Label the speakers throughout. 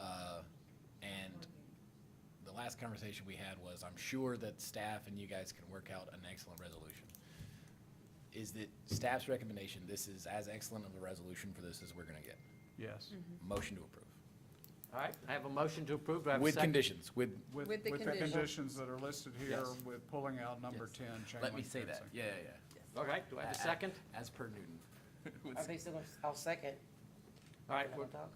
Speaker 1: Uh, conversation we had was, I'm sure that staff and you guys can work out an excellent resolution. Is that staff's recommendation, this is as excellent of a resolution for this as we're gonna get.
Speaker 2: Yes.
Speaker 3: Mm-hmm.
Speaker 1: Motion to approve.
Speaker 4: All right, I have a motion to approve. Do I have a
Speaker 1: With
Speaker 4: second?
Speaker 1: conditions, with,
Speaker 5: With the condition.
Speaker 2: conditions that are listed here,
Speaker 4: Yes.
Speaker 2: with pulling out number 10, chain
Speaker 1: let me
Speaker 2: link
Speaker 1: say that,
Speaker 2: fencing.
Speaker 1: yeah, yeah, yeah.
Speaker 4: All right, do I have a second?
Speaker 1: As per Newton.
Speaker 3: I think so, I'll second.
Speaker 4: All right,
Speaker 3: Can I
Speaker 4: we're-
Speaker 3: talk?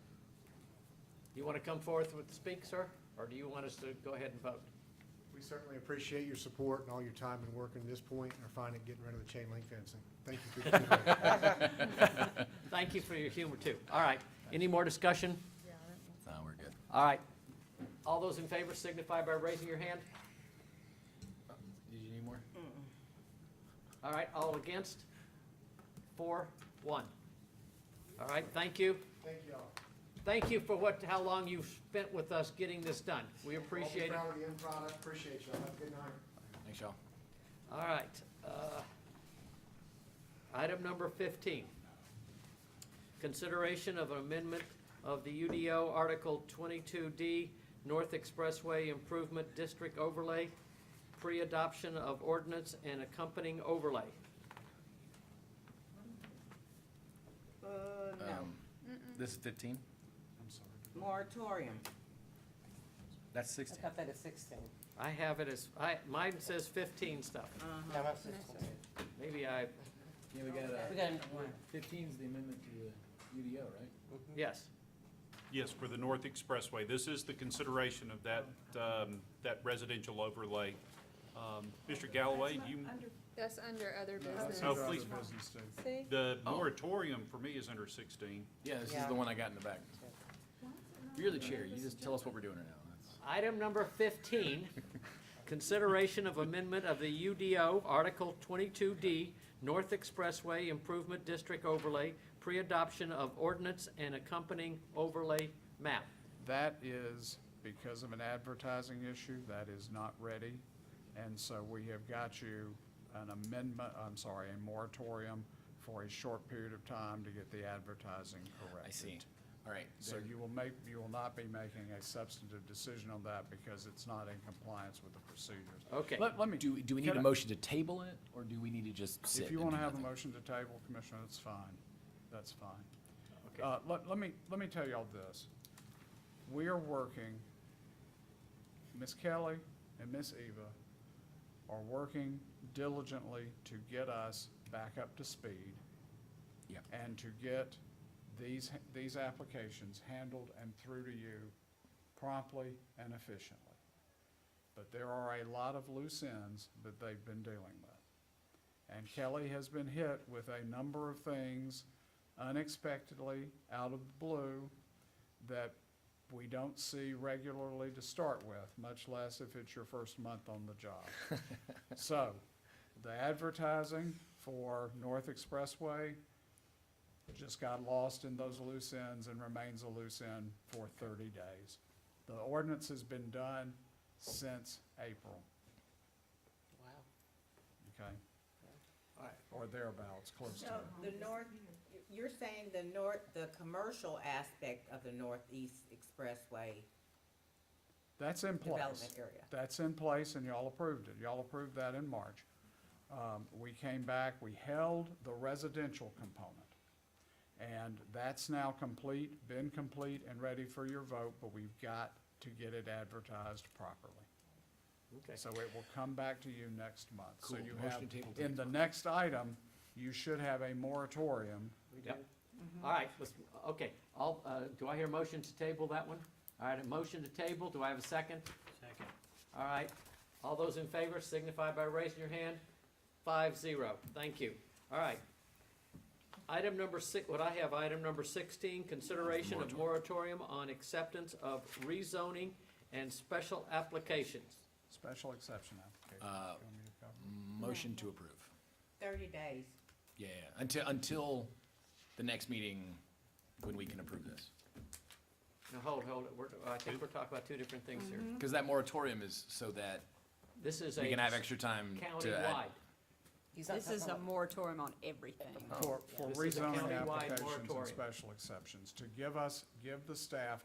Speaker 4: you want to come forth with speak, sir? Or do you want us to go ahead and vote?
Speaker 6: We certainly appreciate your support and all your time and work in this point and are finding getting rid of the chain link fencing. Thank you for your feedback.
Speaker 4: Thank you for your humor, too. All right, any more discussion?
Speaker 1: No, we're good.
Speaker 4: All right, all those in favor signify by raising your hand.
Speaker 1: Did you need more?
Speaker 4: All right, all against? Four, one. All right, thank you.
Speaker 6: Thank you all.
Speaker 4: Thank you for what, how long you've spent with us getting this done. We appreciate it.
Speaker 6: I'll be proud of the end product. Appreciate y'all. Have a good night.
Speaker 1: Thanks, y'all.
Speaker 4: All right. uh, Item number 15. Consideration of amendment of the UDO Article 22D North Expressway Improvement District Overlay, pre-adoption of ordinance and accompanying overlay.
Speaker 3: Uh, no,
Speaker 1: Um, This is fifteen?
Speaker 6: I'm sorry.
Speaker 3: moratorium.
Speaker 1: That's
Speaker 3: I
Speaker 1: sixteen.
Speaker 3: got that at sixteen.
Speaker 4: I have it as, I, mine says 15 stuff.
Speaker 3: No, that's sixteen.
Speaker 4: Maybe I,
Speaker 1: Yeah, we got,
Speaker 3: We got one.
Speaker 1: fifteen's the amendment to the UDO, right?
Speaker 4: yes.
Speaker 7: Yes, for the North Expressway. This is the consideration of that, um, that residential overlay. Um, Mr. Galloway, you,
Speaker 5: That's under other business.
Speaker 7: Oh,
Speaker 2: That's under
Speaker 7: please.
Speaker 2: business too.
Speaker 5: See?
Speaker 7: the moratorium for me is under 16.
Speaker 1: Yeah, this is
Speaker 3: Yeah.
Speaker 1: the one I got in the back. You're the chair, you just tell us what we're doing right now. That's-
Speaker 4: Item number 15, consideration of amendment of the UDO Article 22D North Expressway Improvement District Overlay, pre-adoption of ordinance and accompanying overlay map.
Speaker 2: That is because of an advertising issue, that is not ready. And so we have got you an amendment, I'm sorry, a moratorium for a short period of time to get the advertising corrected.
Speaker 1: I see. All right.
Speaker 2: So you will make, you will not be making a substantive decision on that because it's not in compliance with the procedures.
Speaker 4: Okay,
Speaker 2: Let, let me,
Speaker 1: Do, do we need
Speaker 2: Can
Speaker 1: a
Speaker 2: I-
Speaker 1: motion to table it, or do we need to just sit?
Speaker 2: if you
Speaker 1: and
Speaker 2: want to
Speaker 1: do
Speaker 2: have a
Speaker 1: nothing?
Speaker 2: motion to table, Commissioner, that's fine. That's fine.
Speaker 4: Okay.
Speaker 2: Uh, let, let me, let me tell y'all this. We are working, Ms. Kelly and Ms. Eva are working diligently to get us back up to speed.
Speaker 1: Yep.
Speaker 2: And to get these, these applications handled and through to you promptly and efficiently. But there are a lot of loose ends that they've been dealing with. And Kelly has been hit with a number of things unexpectedly, out of the blue, that we don't see regularly to start with, much less if it's your first month on the job. So, the advertising for North Expressway just got lost in those loose ends and remains a loose end for thirty days. The ordinance has been done since April,
Speaker 4: Wow.
Speaker 2: okay?
Speaker 4: All right.
Speaker 2: Or thereabouts, close to
Speaker 3: So
Speaker 2: it.
Speaker 3: the north, you're saying the north, the commercial aspect of the northeast expressway
Speaker 2: That's in place.
Speaker 3: development area?
Speaker 2: That's in place and y'all approved it. Y'all approved that in March. Um, we came back, we held the residential component. And that's now complete, been complete and ready for your vote, but we've got to get it advertised properly.
Speaker 4: Okay.
Speaker 2: So it will come back to you next month. So
Speaker 1: Cool.
Speaker 2: you
Speaker 1: Motion
Speaker 2: have,
Speaker 1: to table to
Speaker 2: in
Speaker 1: next
Speaker 2: the next item, you should have a moratorium.
Speaker 4: Yep. All right, let's, okay, I'll, uh, do I hear a motion to table that one? All right, a motion to table, do I have a second? Second. All right, all those in favor signify by raising your hand. Five, zero, thank you. All right. Item number six, what I have, item number sixteen, consideration of moratorium on acceptance of rezoning and special applications.
Speaker 2: Special exception application.
Speaker 1: Uh,
Speaker 2: You want me to cover?
Speaker 1: Motion to approve.
Speaker 3: Thirty days.
Speaker 1: Yeah, yeah, until, until the next meeting when we can approve this.
Speaker 4: Now, hold, hold, it. we're, I think we're talking about two different things here.
Speaker 1: Because that moratorium is so that
Speaker 4: This is a
Speaker 1: we can have extra time to
Speaker 4: countywide.
Speaker 1: add.
Speaker 3: He's not
Speaker 8: This is a
Speaker 3: talking
Speaker 8: moratorium on everything.
Speaker 2: For, for
Speaker 4: This is a
Speaker 2: rezoning
Speaker 4: countywide
Speaker 2: applications and
Speaker 4: moratorium.
Speaker 2: special exceptions, to give us, give the staff